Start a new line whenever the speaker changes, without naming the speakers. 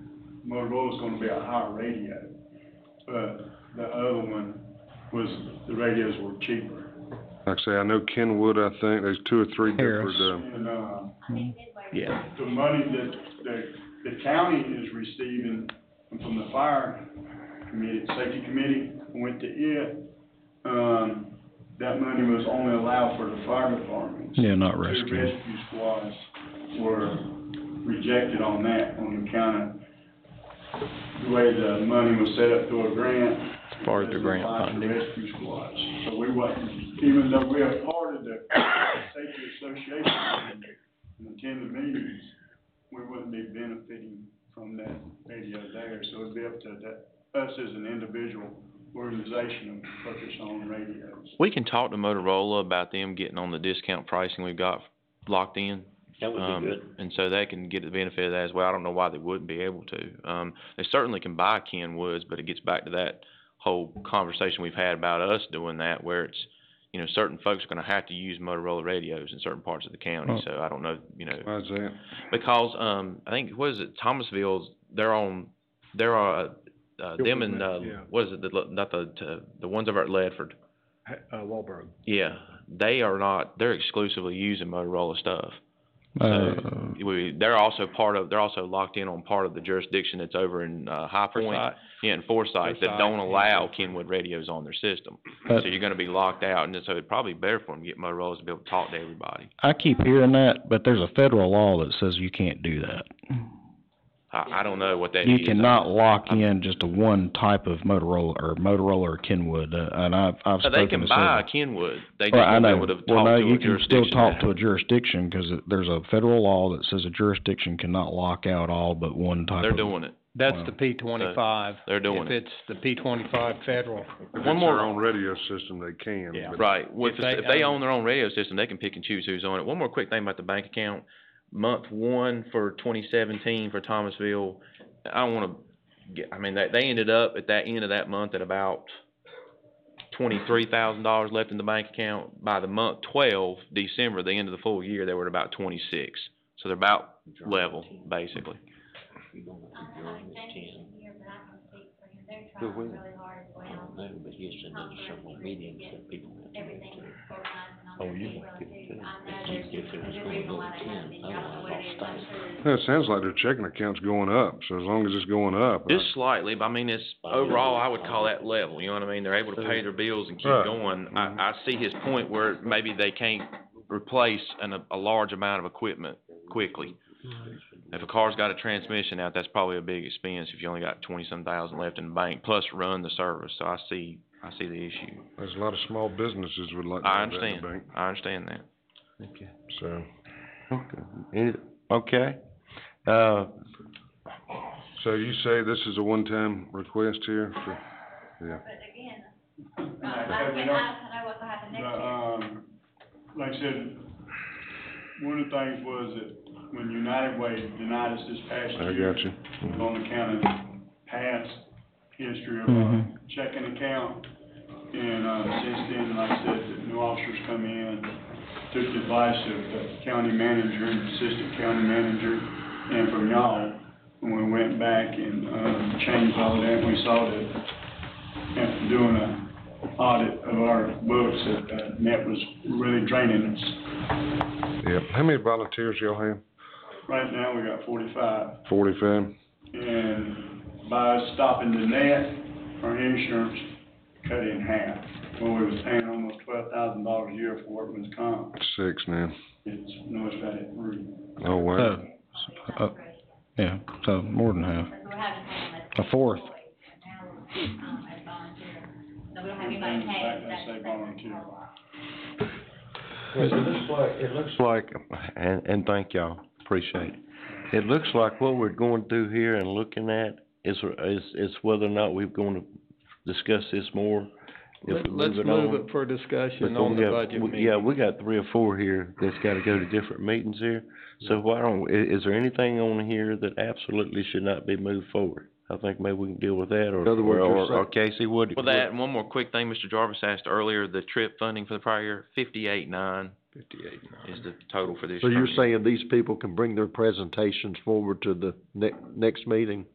Motorola's gonna be a higher radio, but the other one was, the radios were cheaper.
Like I say, I know Kenwood, I think, there's two or three
Harris.
different, um,
And, um,
Yeah.
the money that, that the county is receiving from the fire committee, safety committee, went to it. Um, that money was only allowed for the fire departments.
Yeah, not
Two
rescue.
rescue squads were rejected on that, on account of the way the money was set up through a grant.
As far as the grant
Applied to
funding.
Rescue squads, so we wasn't, even though we are part of the safety association and attend the meetings, we wouldn't be benefiting from that radio there, so it'd be up to that, us as an individual organization to focus on radios.
We can talk to Motorola about them getting on the discount pricing we've got locked in.
That would
Um,
be good.
And so they can get the benefit of that as well. I don't know why they wouldn't be able to. Um, they certainly can buy Kenwoods, but it gets back to that whole conversation we've had about us doing that where it's, you know, certain folks are gonna have to use Motorola radios in certain parts of the county,
Right.
so I don't know, you know.
why's that?
Because, um, I think, what is it, Thomasville's, they're on, they're, uh, uh, them and, uh,
yeah.
what is it, the, not the, t- the ones over at Ledford.
Ha- Uh, Wahlberg.
Yeah, they are not. They're exclusively using Motorola stuff.
Uh,
We, they're also part of. They're also locked in on part of the jurisdiction that's over in uh, High Point.
Forsyth.
Yeah, in Forsyth that
Forsyth,
don't
yeah.
allow Kenwood radios on their system.
But-
so you're going to be locked out, and so it'd probably be better for them to get Motorola's to be able to talk to everybody.
I keep hearing that, but there's a federal law that says you can't do that.
I, I don't know what that
You
is.
cannot lock in just a one type of Motorola or Motorola or Kenwood, uh, and I've, I've
So
spoken to several.
they can buy a Kenwood. They just
Well, I
won't be
know.
able to talk
Well, no,
to
you
a
can still
jurisdiction
talk
that-
to a jurisdiction, cause it- there's a federal law that says a jurisdiction cannot lock out all but one type
They're
of.
doing it.
Wow.
That's the P twenty-five.
They're doing
If it's the P twenty-five federal,
If
One
it's
more-
their own radio system, they can,
Yeah.
but
Right, well, if,
If
it's-
they
if they
own-
own their own radio system, they can pick and choose who's on it. One more quick thing about the bank account, month one for twenty seventeen for Thomasville, I don't wanna get, I mean, they, they ended up at that end of that month at about twenty-three thousand dollars left in the bank account. By the month twelve, December, the end of the full year, they were at about twenty-six, so they're about level, basically.
You're gonna have to join with ten.
here, but I can speak for him. They're
Who
trying
will?
really hard as
I
well.
don't know, but he said there's several meetings that people have to
Everything
go
is
to.
organized and on
Oh,
their
you
feet,
might
really
get
do. I
to it.
know there's,
If you- if it
there's
was
a
gonna
reason
go
why
to
they have
10,
these. I don't know what it is. I'm
I'd
sure it's
it sounds like their checking account's going up, so as long as it's going up. uh, I-
Just slightly, but I mean, it's, overall, I would call that level, you know what I mean? They're able to pay their bills and keep
Right.
going. I, I see his point where maybe they can't replace an, a large amount of equipment quickly. If a car's got a transmission out, that's probably a big expense if you only got twenty-some thousand left in the bank, plus run the service, so I see, I see the issue.
There's a lot of small businesses would like to
I
have that in
understand,
the bank,
I understand that.
so.
Okay, Any- okay, uh,
So you say this is a one-time request here for,
But again,
And
uh,
I
I
said, we
can't,
don't-
I don't know what's gonna happen
But,
next year.
um, like I said, one of the things was that when United Way denied us this past
I
year.
got you.
was On account of past history of our
Mhm.
checking account. And, uh, since then, like I said, the new officers come in, took the advice of the county manager and assistant county manager and from y'all. And we went back and, um, changed all that. and We saw that after doing a audit of our books that, uh, net was really draining us.
Yep. How many volunteers y'all have?
Right now, we got forty-five,
Forty-five?
and by us stopping the net, our insurance cut in half. Well, we was paying almost twelve thousand dollars a year for workman's comp.
Six now.
It's, no, it's about at three.
Oh, wow.
So, uh, yeah, so more than half.
Because we're having them
uh,
as
A fourth.
employees, and now we're, um, as volunteers. So we don't have anybody
Everything's
paid,
back,
that's
they
the
say
thing.
volunteer.
It looks like, it looks like, and, and thank y'all, appreciate it. It looks like what we're going through here and looking at is, is, is whether or not we're gonna discuss this more. if
let-
we
let's
it
move
on.
it for discussion
But
on
we
the
have-
budget
we-
meeting.
Yeah, we got three or four here that's gotta go to different meetings here. So why don't, i- is there anything on here that absolutely should not be moved forward? I think maybe we can deal with that, or,
other words,
or,
you're
or- or Casey, what?
Well, that, and one more quick thing, Mr. Jarvis asked earlier, the trip funding for the prior year, fifty-eight nine
Fifty-eight.
is the total for this
So
year.
you're saying these people can bring their presentations forward to the ne- next meeting?